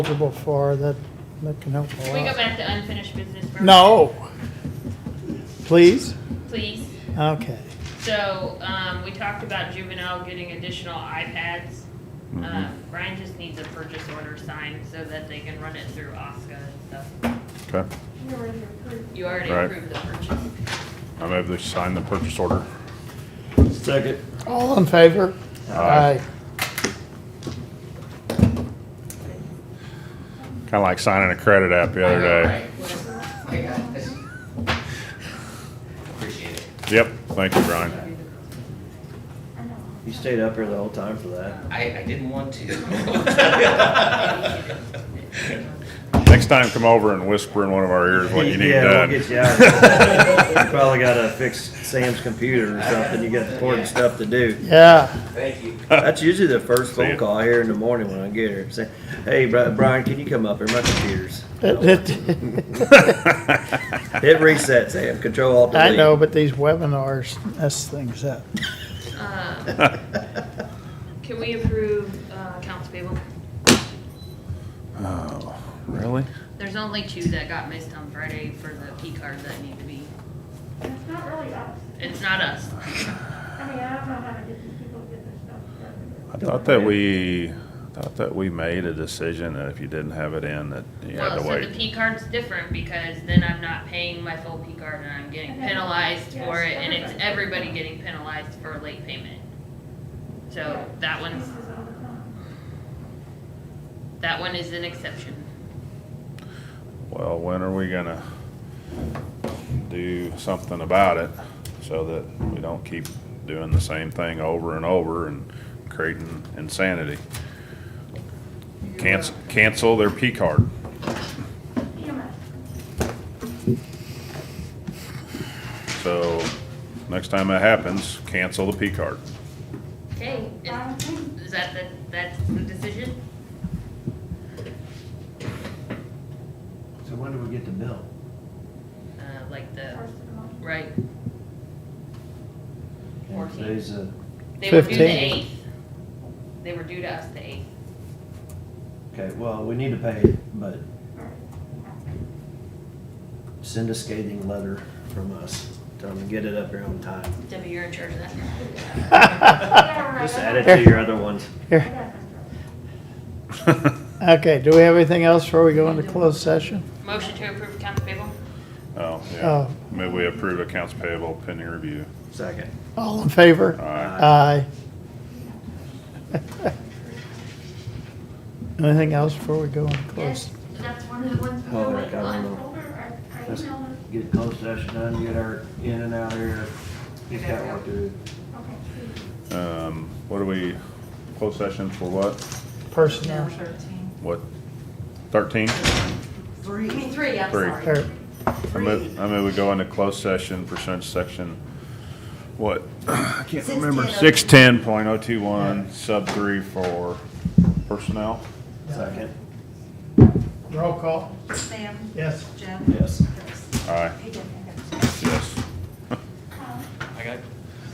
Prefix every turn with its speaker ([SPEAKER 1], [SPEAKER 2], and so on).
[SPEAKER 1] eligible for, that, that can help a
[SPEAKER 2] Can we go
[SPEAKER 1] lot.
[SPEAKER 2] back to unfinished business? for a
[SPEAKER 1] No. Please?
[SPEAKER 2] minute, Please.
[SPEAKER 1] Okay.
[SPEAKER 2] So, um, we talked about juvenile getting additional iPads.
[SPEAKER 3] Mm-hmm.
[SPEAKER 2] Uh, Brian just needs a purchase order signed so that they can run it through OSCA and stuff.
[SPEAKER 3] Okay,
[SPEAKER 2] You already
[SPEAKER 3] Right.
[SPEAKER 2] approved the purchase.
[SPEAKER 3] I move to sign the purchase order.
[SPEAKER 4] Second.
[SPEAKER 1] All in favor?
[SPEAKER 3] Aye. Kind of like signing a credit app
[SPEAKER 2] I
[SPEAKER 3] the other
[SPEAKER 2] know,
[SPEAKER 3] day.
[SPEAKER 2] right? What-
[SPEAKER 5] I got this. Appreciate it.
[SPEAKER 3] Yep, thank you, Brian.
[SPEAKER 4] You stayed up here the whole time for that.
[SPEAKER 5] I, I didn't want to.
[SPEAKER 3] Next time, come over and whisper in one of our ears what you need
[SPEAKER 4] yeah,
[SPEAKER 3] done.
[SPEAKER 4] we'll get you out. you probably gotta fix Sam's computer or something. You got important stuff to do.
[SPEAKER 1] Yeah,
[SPEAKER 5] Thank you.
[SPEAKER 4] That's usually the first
[SPEAKER 3] See
[SPEAKER 4] phone
[SPEAKER 3] ya.
[SPEAKER 4] call here in the morning when I get her. Say, hey, Bri- Brian, can you come up here? My computer's.
[SPEAKER 1] it, it,
[SPEAKER 4] Hit reset, Sam. Control Alt Delete.
[SPEAKER 1] I know, but these webinars mess things up.
[SPEAKER 2] um, Can we approve, uh, accounts payable?
[SPEAKER 3] Oh, really?
[SPEAKER 2] There's only two that got missed on Friday for the P card that need to be,
[SPEAKER 6] It's not really us.
[SPEAKER 2] it's not us.
[SPEAKER 6] I mean, I don't know how to get these people to get their stuff together.
[SPEAKER 3] I thought that we, I thought that we made a decision that if you didn't have it in, that you had
[SPEAKER 2] Well,
[SPEAKER 3] to
[SPEAKER 2] so the
[SPEAKER 3] wait.
[SPEAKER 2] P card's different because then I'm not paying my full P card and I'm getting
[SPEAKER 6] And then-
[SPEAKER 2] penalized
[SPEAKER 6] yes,
[SPEAKER 2] for it and it's
[SPEAKER 6] everybody.
[SPEAKER 2] everybody getting penalized for late payment. So that one's,
[SPEAKER 6] This is all the time.
[SPEAKER 2] that one is an exception.
[SPEAKER 3] Well, when are we gonna do something about it so that we don't keep doing the same thing over and over and creating insanity? Cancel, cancel their P card.
[SPEAKER 6] EMS.
[SPEAKER 3] So next time that happens, cancel the P card.
[SPEAKER 2] Okay,
[SPEAKER 6] Brian,
[SPEAKER 2] is
[SPEAKER 6] can
[SPEAKER 2] is that, the that's the decision?
[SPEAKER 7] So when do we get the bill?
[SPEAKER 2] Uh, like
[SPEAKER 6] you-
[SPEAKER 2] the,
[SPEAKER 6] first of the month.
[SPEAKER 2] right? Fourteen.
[SPEAKER 7] Today's a,
[SPEAKER 2] They were due the
[SPEAKER 1] 15.
[SPEAKER 2] eighth. They were due to us the eighth.
[SPEAKER 7] okay, well, we need to pay it, but
[SPEAKER 6] All right.
[SPEAKER 7] send a scathing letter from us. Tell them to get it up here on time.
[SPEAKER 2] Debbie, you're in charge of that.
[SPEAKER 6] Yeah, right,
[SPEAKER 4] Just
[SPEAKER 6] I
[SPEAKER 4] add it
[SPEAKER 6] got-
[SPEAKER 4] to your other ones.
[SPEAKER 6] I got this.
[SPEAKER 1] Okay, do we have anything else before we go into closed session?
[SPEAKER 2] Motion to approve accounts payable?
[SPEAKER 3] Oh, yeah.
[SPEAKER 1] Oh.
[SPEAKER 3] Maybe we approve accounts payable pending review.
[SPEAKER 4] Second.
[SPEAKER 1] All in favor?
[SPEAKER 3] Aye.
[SPEAKER 1] Aye. Anything else before we go into closed?
[SPEAKER 6] Yes, that's one of the ones.
[SPEAKER 4] Oh, I got one.
[SPEAKER 6] Older, I- I
[SPEAKER 7] Let's
[SPEAKER 6] emailed it.
[SPEAKER 7] get closed session done, get our in and out here. Just got work to do.
[SPEAKER 6] Okay, please.
[SPEAKER 3] Um, what do we, closed session for what?
[SPEAKER 1] Personnel.
[SPEAKER 3] What? Thirteen?
[SPEAKER 8] Three. I mean, three, I'm
[SPEAKER 3] Three.
[SPEAKER 8] sorry.
[SPEAKER 1] Or-
[SPEAKER 3] I move, I move we go into closed session pursuant to section, what? I can't remember. Six ten point oh two one, sub three for personnel.
[SPEAKER 7] Second,
[SPEAKER 1] Roll call.
[SPEAKER 8] Sam,
[SPEAKER 1] Yes.
[SPEAKER 8] Jim.
[SPEAKER 7] yes.
[SPEAKER 8] Chris.
[SPEAKER 3] Aye,
[SPEAKER 8] He didn't.
[SPEAKER 3] yes.